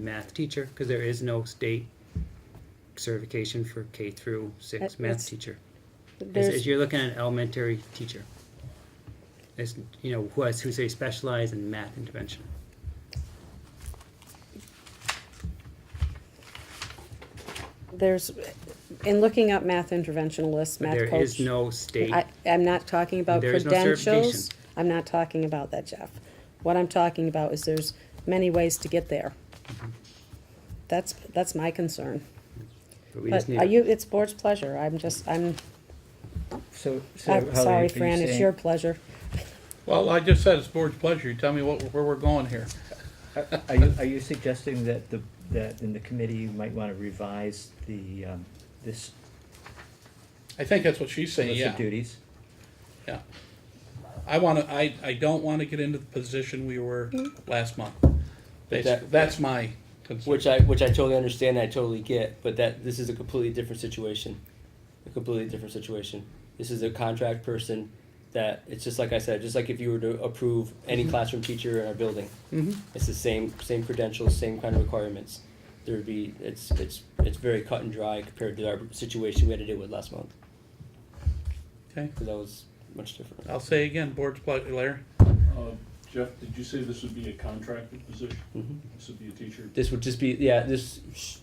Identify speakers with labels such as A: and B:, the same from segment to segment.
A: math teacher, because there is no state certification for K through six
B: That-
A: math
B: that's-
A: teacher. As,
B: There's,
A: as you're looking at an elementary teacher, as, you know, who has, who's a specialized in math intervention.
B: there's, in looking up math interventionalists, math
A: There
B: coach.
A: is no state,
B: I, I'm not talking about
A: There is no certification.
B: credentials. I'm not talking about that, Jeff. What I'm talking about is there's many ways to get there.
A: Mm-hmm.
B: That's, that's my concern.
A: but we
B: But
A: just need.
B: are
A: a-
B: you, it's board's pleasure. I'm just, I'm,
C: So, so
B: I'm
C: Holly, are
B: Uh, sorry,
C: you
B: Fran, it's
C: saying-
B: your pleasure.
D: Well, I just said it's board's pleasure. You tell me what, where we're going here.
C: Are are you, are you suggesting that the, that in the committee, you might want to revise the, um, this
D: I think that's what she's saying,
C: list of
D: yeah,
C: duties?
D: yeah. I wanna, I, I don't wanna get into the position we were last month. That's,
E: That-
D: that's my concern.
E: Which I which I totally understand, I totally get, but that this is a completely different situation. A completely different situation. This is a contract person that it's just like I said, just like if you were to approve any classroom teacher in our building.
D: Mm-hmm.
E: It's the same same credentials, same kind of requirements. There would be it's it's it's very cut and dry compared to our situation we had to deal with last month
D: Okay,
E: because that was much different.
D: I'll say again, board's pleasure, Larry.
F: Uh, Jeff, did you say this would be a contracted position? This would be a teacher?
E: this would just be yeah this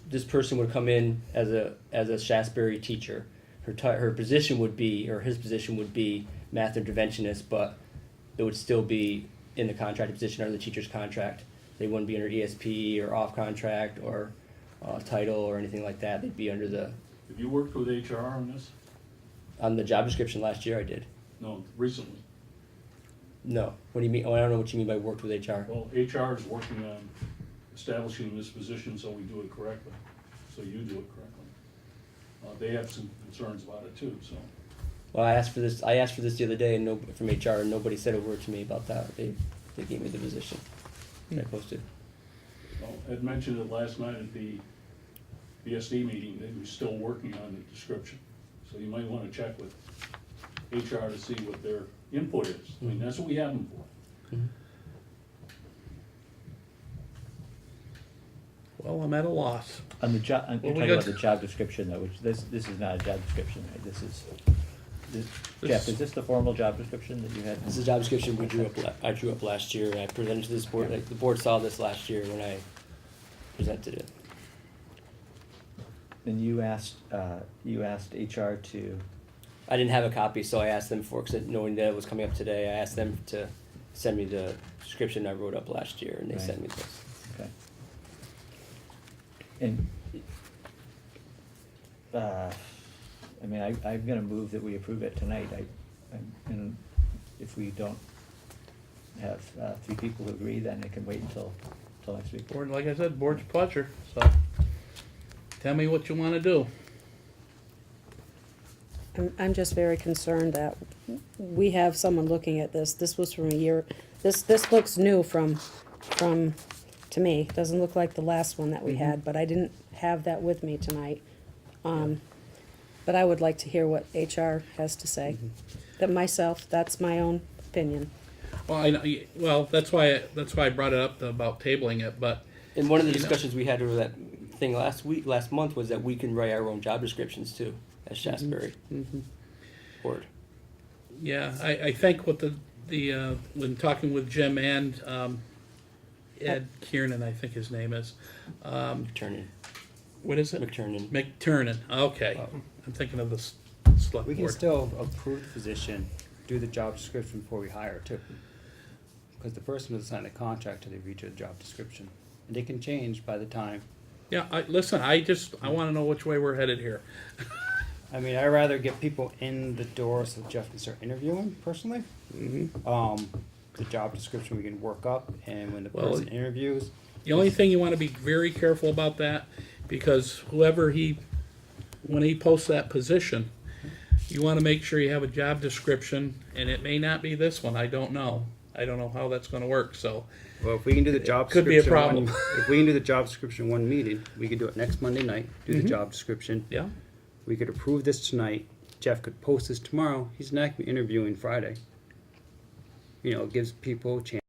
E: this person would come in as a as a Shasberry teacher her ti her position would be or his position would be math interventionist but it would still be in the contracted position under the teacher's contract they wouldn't be under ESP or off contract or uh, title or anything like that they'd be under the
F: Have you worked with HR on this?
E: on the job description last year I did
F: No, recently.
E: no what do you mean oh I don't know what you mean by worked with HR
F: Well, HR is working on establishing this position so we do it correctly, so you do it correctly. Uh, they have some concerns about it too, so.
E: Well, I asked for this. I asked for this the other day, and no, from HR, and nobody said a word to me about that. They, they gave me the position. that I
D: Hmm.
E: posted.
F: Well, Oh, Ed mentioned it last night at the BSD meeting, that he was still working on the description. So you might wanna check with HR to see what their input is. I mean, that's what we have them for.
D: Well, I'm at a loss.
C: On the job, I'm
D: Well, we
C: talking about
D: got-
C: the job description though, which this, this is not a job description, right? This is, this,
D: This
C: Jeff,
D: is-
C: is this the formal job description that you had?
E: This is a job description we drew up. la- I drew up last year, and I presented to this board. Like, the board saw this last year when I presented it.
C: And you asked, uh, you asked HR to,
E: I didn't have a copy, so I asked them for. Cause knowing that it was coming up today, I asked them to send me the description I wrote up last year, and they
C: Right.
E: sent me this.
C: okay. And, uh, I mean, I, I'm gonna move that we approve it tonight, I, I'm- and if we don't have, uh, three people who agree, then it can wait until, until next week.
D: Board, like I said, board's pleasure, so. Tell me what you wanna do.
B: I'm, I'm just very concerned that we have someone looking at this. This was from a year, this, this looks new from, from, to me. Doesn't look like the last one that we had, but I didn't have that with me tonight. Um, but I would like to hear what HR has to say. That myself, that's my own opinion.
D: Well, I, know- well, that's why, that's why I brought it up about tabling it, but
E: And one of the
D: You know.
E: discussions we had over that thing last week, last month, was that we can write our own job descriptions too
D: Mm-hmm.
E: as Shasberry board.
D: Yeah, I, I think what the, the, uh, when talking with Jim and, um, Ed Kiernan, I think his name is, um,
E: McTurnan.
D: what is it? Oh.
E: McTurnan.
D: McTurnan, okay, I'm thinking of the s- select
G: We can
D: board.
G: still approve the position, do the job description before we hire too. Because the person doesn't sign the contract till they read the job description. And they can change by the time.
D: Yeah, I, listen, I just, I wanna know which way we're headed here.
G: I mean, I'd rather get people in the door so Jeff can start interviewing personally. Um, the job description we can work up and when the
D: Well,
G: person interviews,
D: The only thing you wanna be very careful about that, because whoever he, when he posts that position, you wanna make sure you have a job description, and it may not be this one, I don't know. I don't know how that's gonna work, so.
G: well, if we can do the job
D: Could be a
G: description, one-
D: problem.
G: if we can do the job description in one meeting, we could do it next Monday night, do the job description.
D: Mm-hmm. Yeah.
G: We could approve this tonight. Jeff could post this tomorrow. He's not gonna be interviewing Friday. You know, it gives people a chance